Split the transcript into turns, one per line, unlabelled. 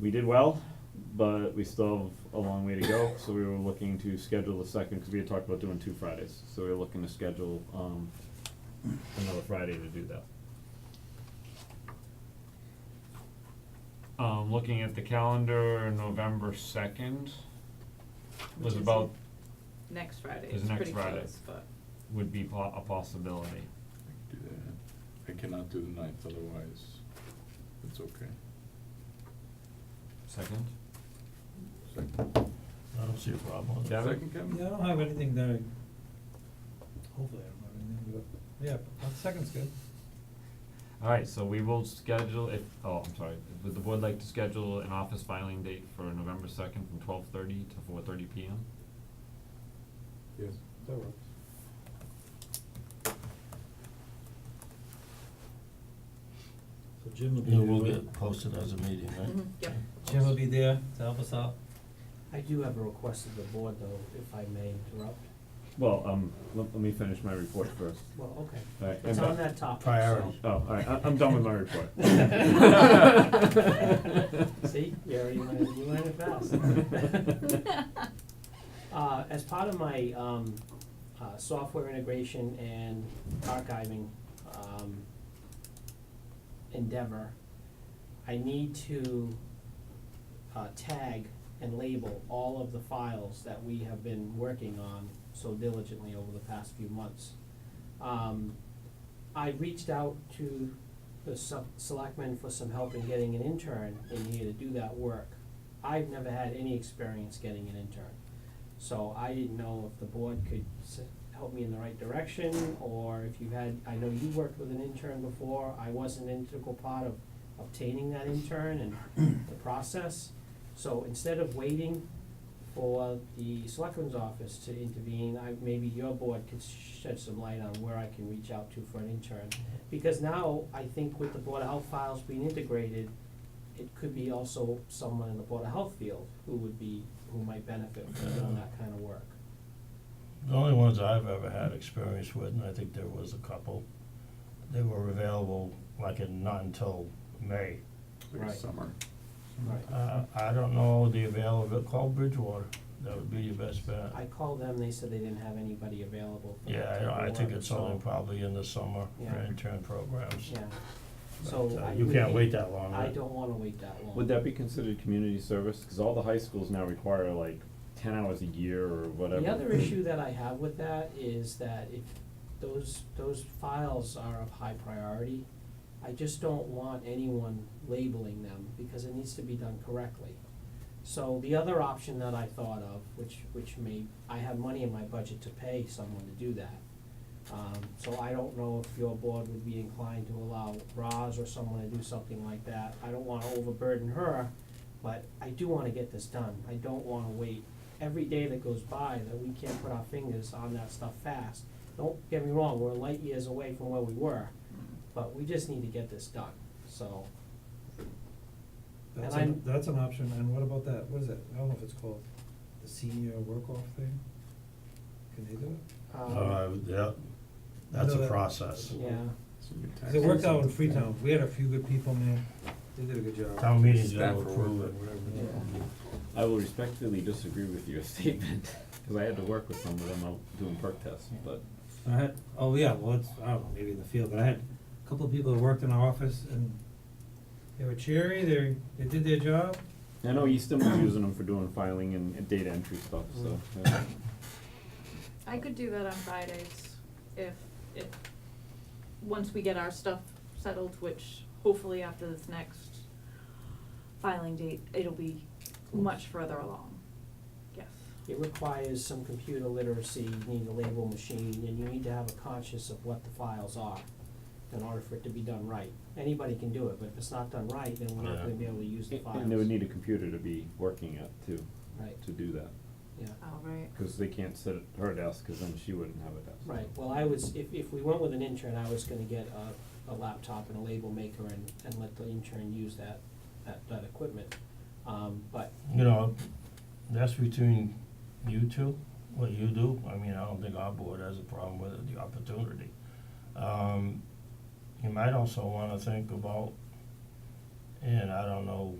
we did well, but we still have a long way to go, so we were looking to schedule the second, because we had talked about doing two Fridays, so we were looking to schedule, um, another Friday to do that.
Um, looking at the calendar, November second
Which
was
is
about,
Next Friday,
Is
it's
next
pretty
Friday.
close, but,
would be po- a possibility.
Do that. I cannot do the ninth, otherwise, it's okay.
Second?
Second,
I don't see a problem with it.
Gavin?
second, Kevin?
Yeah, I don't have anything that I, hopefully I don't have anything, but, yeah, but the second's good.
Alright, so we will schedule if, oh, I'm sorry, would the board like to schedule an office filing date for November second from twelve thirty to four thirty P M?
Yes.
That works. So Jim will be
It
there,
will
right?
get posted as a meeting, right?
Mhm, yep.
Jim will be there to help us out.
I do have a request of the board though, if I may interrupt.
Well, um, let, let me finish my report first.
Well, okay.
Alright,
It's
and- uh,
on that topic, so.
Priority.
Oh, alright, I, I'm done with my report.
See, you already learned, you learned it fast. Uh, as part of my, um, uh, software integration and archiving, um, endeavor, I need to, uh, tag and label all of the files that we have been working on so diligently over the past few months. Um, I reached out to the sub- selectmen for some help in getting an intern in here to do that work. I've never had any experience getting an intern, so I didn't know if the board could s- help me in the right direction, or if you had, I know you worked with an intern before, I was an integral part of obtaining that intern and the process. So instead of waiting for the selectmen's office to intervene, I, maybe your board could shed some light on where I can reach out to for an intern. Because now, I think with the Board of Health files being integrated, it could be also someone in the Board of Health field who would be, who might benefit from doing that kind of work.
The only ones I've ever had experience with, and I think there was a couple, they were available like in, not until May.
Like a
Right.
summer.
Right.
Uh, I don't know the availability, call Bridgewater, that would be your best bet.
I called them, they said they didn't have anybody available for that
Yeah, I
type
don't-
of
I think
work,
it's
so-
only probably in the summer for
Yeah.
intern programs.
Yeah,
But,
so
uh,
I
You
would
can't
be-
wait that long,
I
right?
don't wanna wait that long.
Would that be considered community service? Because all the high schools now require like ten hours a year or whatever.
The other issue that I have with that is that if those, those files are of high priority, I just don't want anyone labeling them because it needs to be done correctly. So the other option that I thought of, which, which may, I have money in my budget to pay someone to do that. Um, so I don't know if your board would be inclined to allow Roz or someone to do something like that. I don't wanna overburden her, but I do wanna get this done. I don't wanna wait every day that goes by that we can't put our fingers on that stuff fast. Don't get me wrong, we're light years away from where we were, but we just need to get this done, so.
That's
And
an,
I'm-
that's an option, and what about that, what is it, I don't know if it's called, the senior work off thing? Can they do it?
um,
Uh, yeah, that's
know
a
that-
process.
Yeah,
So your
'Cause it worked out in
taxes and-
Freetown, we had a few good people, man, they did a good job.
Town meeting's
Staff
gonna
or
approve
work,
it.
whatever.
Yeah.
I will respectfully disagree with your statement, because I had to work with some of them out doing perk tests, but.
I had, oh yeah, well, it's, I don't know, maybe in the field, but I had a couple of people that worked in our office and they were cheery, they, they did their job.
I know Easton was using them for doing filing and and data entry stuff, so. yeah.
Mm.
I could do that on Fridays if, if, once we get our stuff settled, which hopefully after this next filing date, it'll be much further along, yes.
it requires some computer literacy, you need to label machine, and you need to have a conscious of what the files are in order for it to be done right. Anybody can do it, but if it's not done right, then we're not
Yeah.
gonna be able to use the
And-
files.
And they would need a computer to be working at too,
Right,
to do that,
yeah.
All right.
because they can't sit at her desk, because then she wouldn't have a desk.
Right, well, I was, if, if we went with an intern, I was gonna get a, a laptop and a label maker and, and let the intern use that, that, that equipment. Um, but,
You know, that's between you two, what you do, I mean, I don't think our board has a problem with it, the opportunity. Um, you might also wanna think about, and I don't know